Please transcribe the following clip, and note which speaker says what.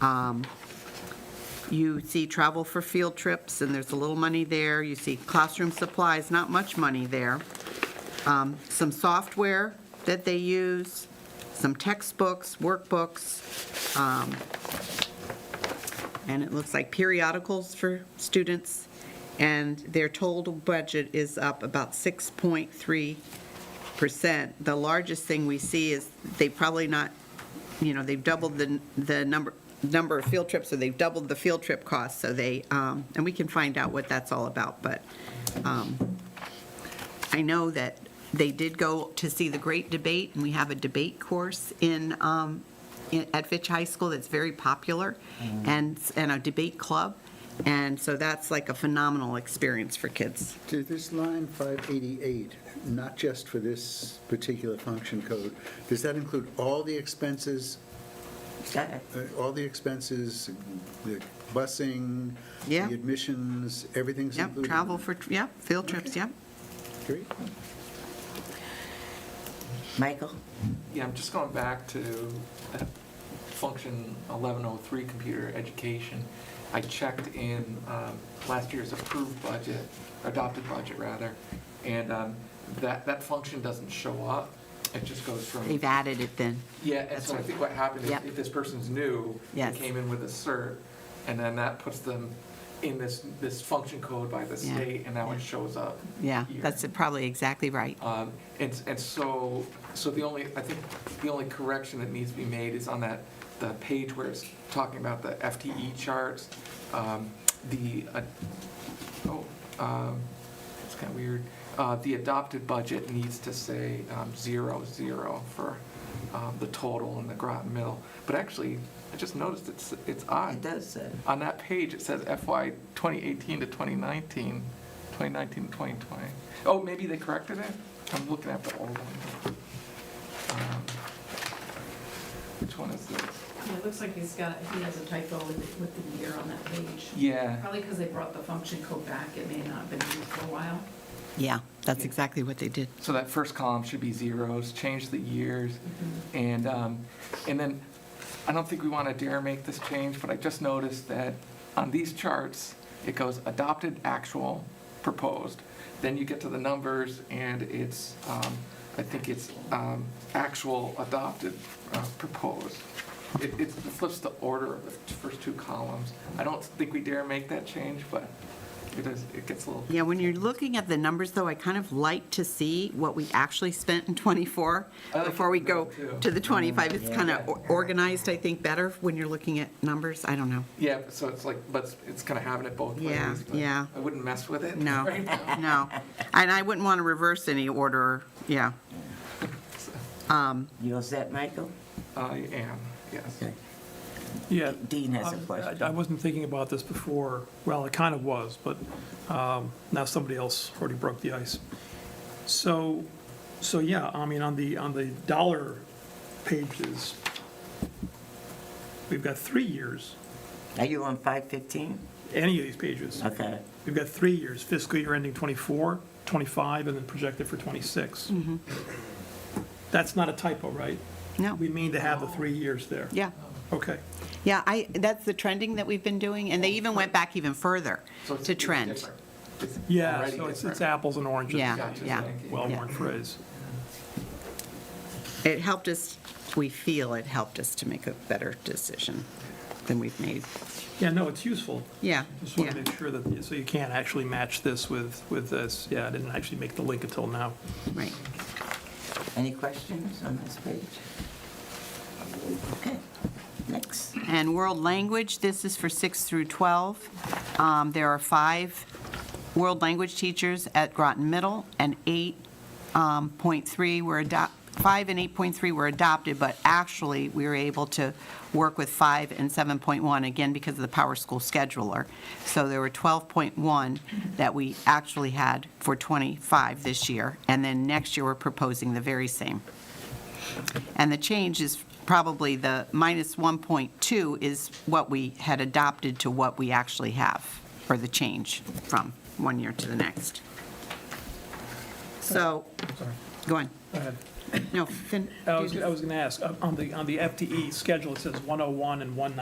Speaker 1: Um, You see travel for field trips, and there's a little money there. You see classroom supplies, not much money there. Um, Some software that they use, some textbooks, workbooks, um, and it looks like periodicals for students. And their total budget is up about 6.3%. The largest thing we see is they probably not you know, they've doubled the, the number, number of field trips, or they've doubled the field trip cost, so they, um, and we can find out what that's all about, but um, I know that they did go to see the Great Debate, and we have a debate course in, um, in- at Fitch High School that's very popular, and, and a debate club, and so that's like a phenomenal experience for kids.
Speaker 2: To this line 588, not just for this particular function code, does that include all the expenses, uh, all the expenses, the busing?
Speaker 1: Yeah.
Speaker 2: The admissions, everything's
Speaker 1: Yep,
Speaker 2: included?
Speaker 1: travel for, yep, field trips, yep.
Speaker 2: Great.
Speaker 3: Michael?
Speaker 4: Yeah, I'm just going back to that function 1103, computer education. I checked in um, last year's approved budget, adopted budget, rather, and um, that, that function doesn't show up. It just goes from,
Speaker 1: They've added it then.
Speaker 4: yeah, and so I think what happened is
Speaker 1: Yep.
Speaker 4: if this person's new, they
Speaker 1: Yes.
Speaker 4: came in with a cert, and then that puts them in this, this function code by the
Speaker 1: Yeah.
Speaker 4: state, and now it shows up.
Speaker 1: Yeah,
Speaker 4: here.
Speaker 1: that's probably exactly right.
Speaker 4: Um, And, and so, so the only, I think, the only correction that needs to be made is on that, the page where it's talking about the FTE charts, um, the, uh, oh, um, it's kind of weird, Uh, the adopted budget needs to say um, zero, zero for um, the total in the Groton Middle. But actually, I just noticed it's, it's odd.
Speaker 3: It does say.
Speaker 4: On that page, it says FY 2018 to 2019, 2019 to 2020. Oh, maybe they corrected it? I'm looking at the old one. Um, Which one is this?
Speaker 5: Yeah, it looks like he's got, he has a typo with, with the year on that page.
Speaker 4: Yeah,
Speaker 5: Probably because they brought the function code back, it may not have been used for a while.
Speaker 1: Yeah, that's
Speaker 4: Yeah.
Speaker 1: exactly what they did.
Speaker 4: so that first column should be zeros, change the years. And, um, and then, I don't think we want to dare make this change, but I just noticed that on these charts, it goes adopted, actual, proposed. Then you get to the numbers, and it's, um, I think it's um, actual, adopted, uh, proposed. It it flips the order of the first two columns. I don't think we dare make that change, but it is, it gets a little.
Speaker 1: Yeah, when you're looking at the numbers, though, I kind of like to see what we actually spent in '24
Speaker 4: I like
Speaker 1: before we
Speaker 4: that
Speaker 1: go
Speaker 4: too.
Speaker 1: to the '25. It's
Speaker 3: yeah.
Speaker 1: kind of organized, I think, better when you're looking at numbers. I don't know.
Speaker 4: Yeah, so it's like, but it's kind of having it both ways.
Speaker 1: Yeah,
Speaker 4: but
Speaker 1: yeah.
Speaker 4: I wouldn't mess with it.
Speaker 1: No,
Speaker 4: right now.
Speaker 1: no. And I wouldn't want to reverse any order, yeah. Um,
Speaker 3: You all set, Michael?
Speaker 4: I am, yes.
Speaker 3: Okay.
Speaker 6: Yeah.
Speaker 3: Dean has a
Speaker 6: Um, I-
Speaker 3: question.
Speaker 6: I wasn't thinking about this before, well, I kind of was, but um, now somebody else already broke the ice. So, so yeah, I mean, on the, on the dollar pages, we've got three years,
Speaker 3: Are you on 515?
Speaker 6: any of these pages.
Speaker 3: Okay.
Speaker 6: We've got three years, fiscal year ending '24, '25, and then projected for '26. That's not a typo, right?
Speaker 1: Mm-hmm. No,
Speaker 6: We mean to have the three years there.
Speaker 1: yeah,
Speaker 6: Okay.
Speaker 1: yeah, I, that's the trending that we've been doing, and they even went back even further
Speaker 4: So it's-
Speaker 1: to
Speaker 4: it's
Speaker 1: trend.
Speaker 4: different. It's
Speaker 6: Yeah,
Speaker 4: already
Speaker 6: so it's,
Speaker 4: different.
Speaker 6: it's apples and oranges.
Speaker 1: Yeah,
Speaker 4: Gotcha,
Speaker 1: yeah.
Speaker 4: thank you.
Speaker 6: Well-worn phrase.
Speaker 1: It helped us, we feel it helped us to make a better decision than we've made.
Speaker 6: Yeah, no, it's useful.
Speaker 1: Yeah,
Speaker 6: Just want
Speaker 1: yeah.
Speaker 6: to make sure that, so you can't actually match this with, with this. Yeah, I didn't actually make the link until now.
Speaker 1: Right.
Speaker 3: Any questions on this page? Okay, next.
Speaker 1: And world language, this is for 6 through 12. Um, There are five world language teachers at Groton Middle, and 8.3 were adopted, 5 and 8.3 were adopted, but actually, we were able to work with 5 and 7.1, again, because of the Power School scheduler. So there were 12.1 that we actually had for 25 this year, and then next year, we're proposing the very same. And the change is probably the minus 1.2 is what we had adopted to what we actually have, or the change from one year to the next. So, go on.
Speaker 6: Go ahead.
Speaker 1: No, fin.
Speaker 6: I was, I was going to ask, uh, on the, on the FTE schedule, it E says 101 and 190.